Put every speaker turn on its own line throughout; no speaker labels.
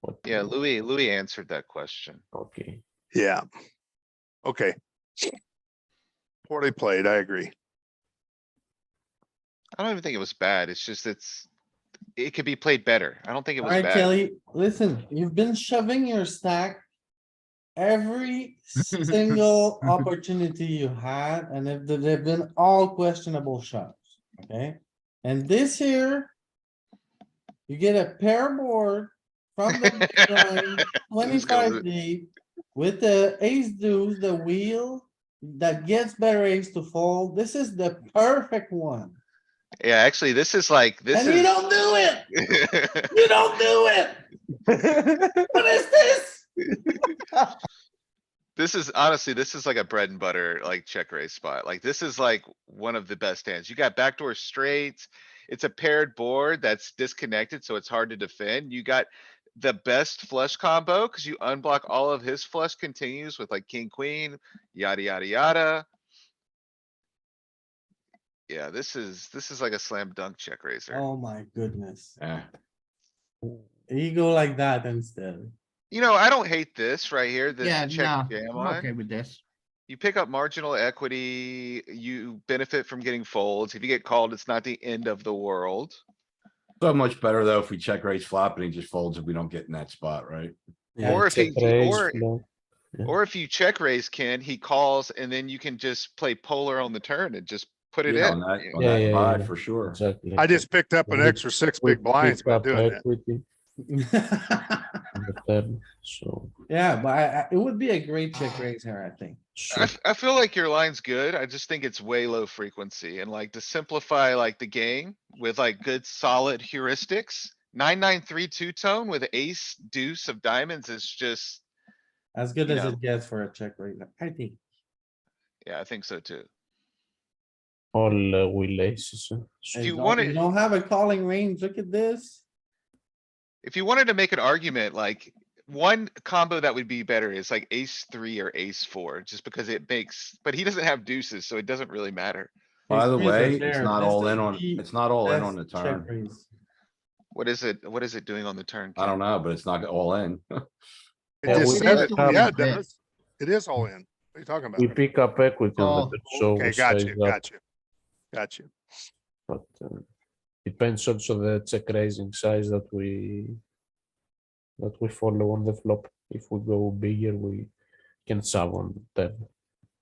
What-
Mm-hmm.
Yeah, Louis, Louis answered that question.
Okay,
Yeah. Okay. Poorly played, I agree.
I don't even think it was bad. It's just it's, it could be played better. I don't think it was
Alright,
bad.
Kelly, listen, you've been shoving your stack. Every single opportunity you had, and if they've been all questionable shots, okay? And this here. You get a pair board from the big blind,
Who's gonna lo-
twenty-five deep with the ace deuce, the wheel. That gets better ace to fold. This is the perfect one.
Yeah, actually, this is like, this
And you
is.
don't do it. You don't do it. What is this?
This is honestly, this is like a bread and butter, like check raise spot. Like this is like one of the best hands. You got backdoor straights. It's a paired board that's disconnected, so it's hard to defend. You got the best flush combo because you unblock all of his flush continues with like king, queen, yada, yada, yada. Yeah, this is, this is like a slam dunk check raiser.
Oh my goodness.
Ah,
You go like that instead.
You know, I don't hate this right here, this
Yeah,
check
no,
jam
I'm
on.
okay with this.
You pick up marginal equity, you benefit from getting folds. If you get called, it's not the end of the world.
so much better though if we check raise flop and he just folds if we don't get in that spot, right?
Yeah,
Or if
check
he,
raise,
or,
no. yeah.
or if you check raise Ken, he calls and then you can just play polar on the turn and just put it
Yeah, On
in.
that, on
Yeah,
that
yeah, yeah,
buy,
yeah.
for sure.
Exactly.
I just picked up an
Yeah, we-
extra six
We
big blinds
picked
by
up
doing that.
equity on the turn, so.
Yeah, but I, I- it would be a great check
Ah.
raise here, I think.
I, f- I feel like your line's good. I just think it's way low frequency and like to simplify like the game with like good solid heuristics. Nine, nine, three, two tone with ace deuce of diamonds is just,
As good
You
as
know.
it gets for a check raise, I think.
yeah, I think so too.
All uh, will aces, uh, so-
And
you
don't-
want
You
it-
don't have a calling range. Look at this.
If you wanted to make an argument, like, one combo that would be better is like ace three or ace four, just because it makes, but he doesn't have deuces, so it doesn't really matter.
By the
These threes are
way, it's
there.
not
This
all
is
in on,
the
it's not
Oh,
all in on the
best check
turn.
raise.
What is it, what is it doing on the turn?
I don't know, but it's not all in.
It
Yeah,
just
we
said
picked
it.
up-
Yeah, it does. It is all in. What are you talking
We
about?
pick up equity
Oh,
on the turn, so
Okay,
we
got
size
you,
up,
got you. Got you.
but uh, depends also the check raising size that we that we follow on the flop. If we go bigger, we can sub on turn.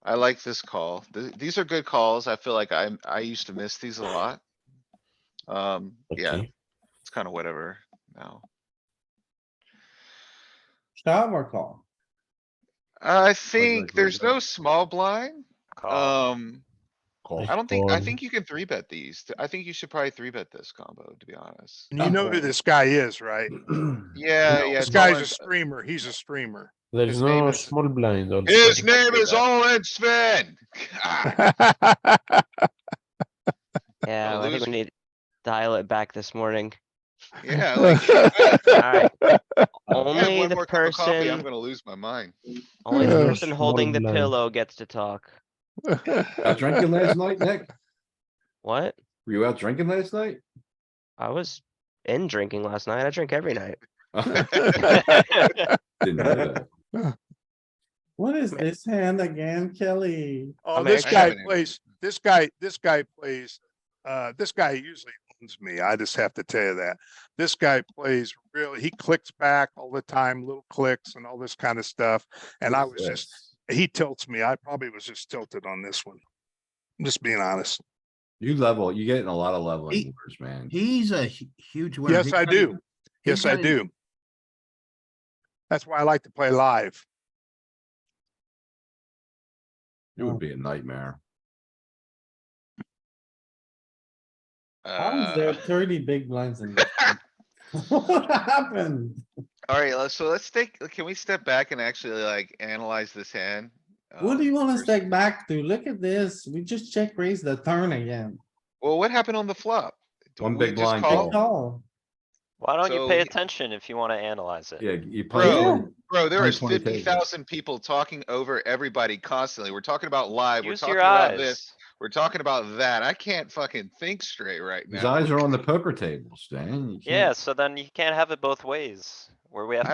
I like this call. Th- these are good calls. I feel like I'm, I used to miss these a lot. Um, yeah,
Okay.
it's kinda whatever now.
Shove or call?
I
like
think
we're
there's
done.
no small blind. Um,
Call.
I don't think, I
Call.
think you can three bet these. I think you should probably three bet this combo, to be honest.
And you know who this guy is, right?
Yeah, yeah.
This
it's all
guy's
in-
a streamer. He's a streamer.
There's
his name
no
is-
small blind also.
His name is Owen Sven. Ah,
Yeah,
Oh,
I think
those-
we need to dial it back this morning.
Yeah, like, if
Alright,
I have
only
one
the
more cup of coffee, I'm
person,
gonna lose my mind.
only the
Yeah.
person holding the
Borderline.
pillow gets to talk.
Out drinking last night, Nick?
What?
Were you out drinking last night?
I was in drinking last night. I drink every night.
Didn't know that.
What is this hand again, Kelly?
Oh,
I'm
this
actually-
guy plays, this guy, this guy plays, uh, this guy usually owns me. I just have to tell you that. This guy plays really, he clicks back all the time, little clicks and all this kind of stuff. And I was just, he tilts me. I probably was just tilted on this one. I'm just being honest.
You level, you get in a lot of leveling
He-
wars, man.
He's a hu- huge winner.
Yes,
He's
I
got
do.
a- he's
Yes, I
got a-
do. That's why I like to play live.
It would be a nightmare.
How is there
Uh,
thirty big blinds in this? What happened?
Alright, let's, so let's take, can we step back and actually like analyze this hand?
What do
Um,
you want us
first-
to take back to? Look at this. We just check raise the turn again.
Well, what happened on the flop? Do
One
we
big
just
blind
call?
Big
Oh.
call.
Why don't you pay
So-
attention if you wanna analyze it?
Yeah, you
Bro.
play.
Bro, there is
120
fifty thousand people talking over everybody constantly. We're talking about live, we're
Use
talking
your
about this,
eyes.
we're talking about that. I can't fucking think straight right
His
now.
eyes are on the poker table, Stan. You can't-
Yeah, so then you can't have it both ways, where we have